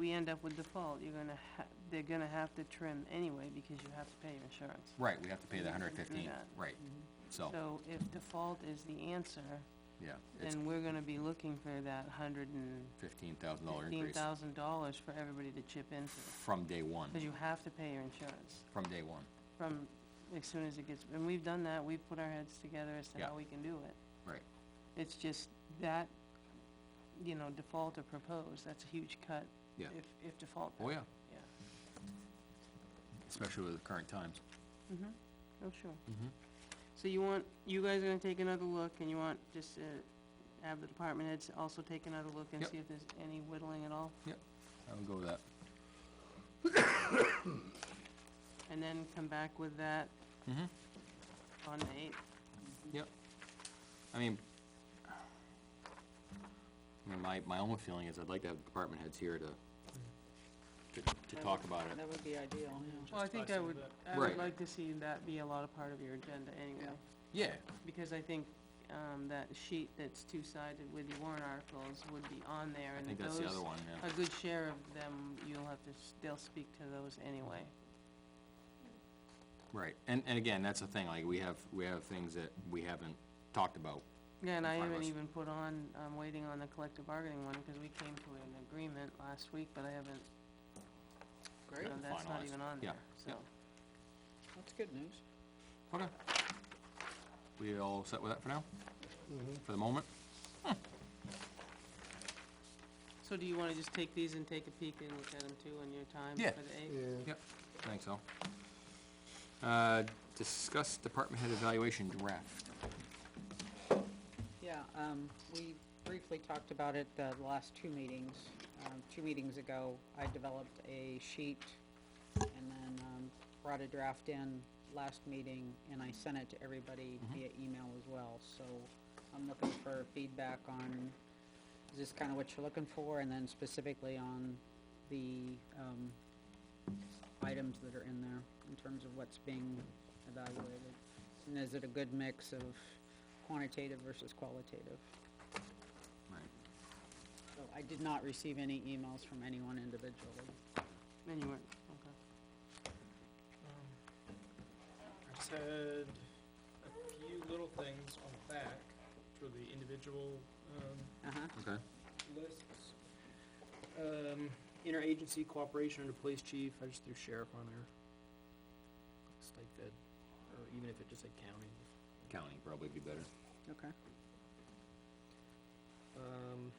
we end up with default, you're gonna ha, they're gonna have to trim anyway, because you have to pay your insurance. Right, we have to pay the hundred fifteen, that. Mm-hmm. right, so, So if default is the answer, yeah, it's then we're gonna be looking for that hundred and fifteen thousand dollar fifteen increase thousand dollars for everybody to chip into. from day one, Because you have to pay your insurance from day one, from, as soon as it gets, and we've done that, we've put our heads together as to Yeah. how we can do it. right, It's just that, you know, default or proposed, that's a huge cut. Yeah. If, if default. oh, yeah, Yeah, especially with the current times. oh, sure. So you want, you guys are gonna take another look, and you want just to have the department heads also take another look and Yep. see if there's any whittling at all? Yep, I would go with that. And then come back with that Mhm. on the eighth? Yep. I mean, I mean, my, my own feeling is I'd like to have department heads here to, to, to talk about it. That would be ideal, yeah. Well, I think I would, I Right. would like to see that be a lot of part of your agenda anyway, Yeah, because I think, um, that sheet that's two-sided with the warrant articles would be on there, I and think those. that's the other one, yeah. A good share of them, you'll have to, s- they'll speak to those anyway. Right, and, and again, that's the thing, like, we have, we have things that we haven't talked about. Yeah, and I haven't Finalist. even put on, I'm waiting on the collective bargaining one, because we came to an agreement last week, but I haven't, you Great, know, that's not Finalized. even on Yeah, there, so. yeah. that's good news. Okay. We all set with that for now? For the moment? So do you wanna just take these and take a peek and look at them too on your time Yeah. for the eighth? Yep, I think so. Uh, discuss department head evaluation draft. Yeah, um, we briefly talked about it the last two meetings. Um, two meetings ago, I developed a sheet and then, um, brought a draft in last meeting and I sent it to everybody via email as well, so I'm looking for feedback on, is this kinda what you're looking for? And then specifically on the, um, items that are in there in terms of what's being evaluated? And is it a good mix of quantitative versus qualitative? Right. So I did not receive any emails from anyone individually. Then you weren't, okay. Um, I just had a few little things on the back for the individual, um, Uh-huh, Okay. lists. Um, interagency cooperation under police chief, I just threw sheriff on there. Just like that, or even if it just said county. Counting probably be better. okay. Um,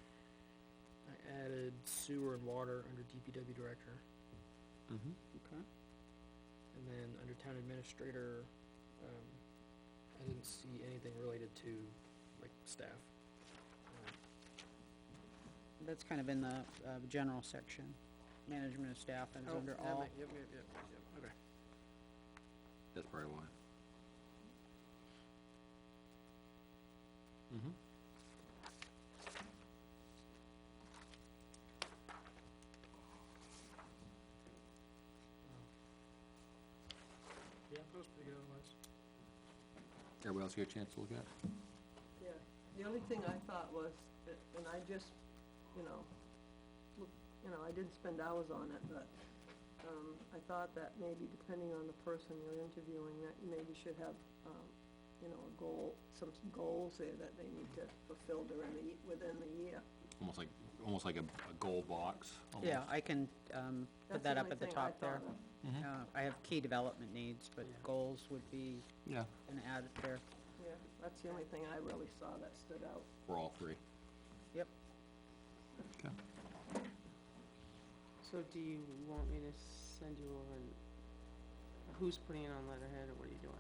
I added sewer and water under DPW director, Mm-hmm. and then under town administrator, um, I didn't see anything related to, like, staff. Uh, That's kind of in the, uh, general section, management of staff and it's Oh, under that all. might- Yep, yep, yep, yep, okay. That's probably why. Mm-hmm. Yeah, that was pretty good otherwise. Everybody else get a chance to look at it? Yeah, the only thing I thought was, uh, and I just, you know, look, you know, I didn't spend hours on it, but, um, I thought that maybe depending on the person you're interviewing, that you maybe should have, um, you know, a goal, some goals there that they need to fulfill during the, ye- within the year. Almost like, almost like a, a goal box. Yeah, almost. I can, um, put That's that up only at the thing I top there. thought of. Mm-hmm. Uh, I have key development needs, but Yeah. goals would be Yeah, an added there. Yeah, that's the only thing I really saw that stood out. for all three. Yep, Okay. So do you want me to send you over and, who's putting it on letterhead, or what are you doing?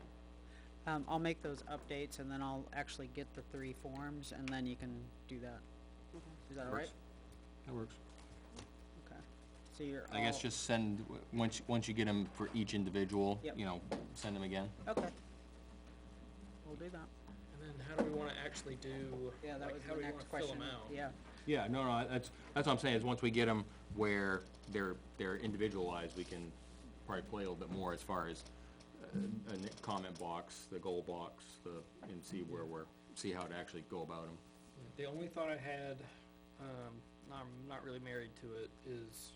um, I'll make those updates and then I'll actually get the three forms and then you can do that. Is that all right? Works. That works. Okay, so you're all. I guess just send, w- once, once you get them for each individual, Yep. you know, send them again. Okay. We'll do that. And then how do we wanna actually do, Yeah, that like, was how the do we wanna next fill question. them out? Yeah, Yeah, no, no, that's, that's what I'm saying, is once we get them where they're, they're individualized, we can probably play a little bit more as far as uh, a n- comment box, the goal box, the, and see where we're, see how to actually go about them. The only thought I had, um, and I'm not really married to it, is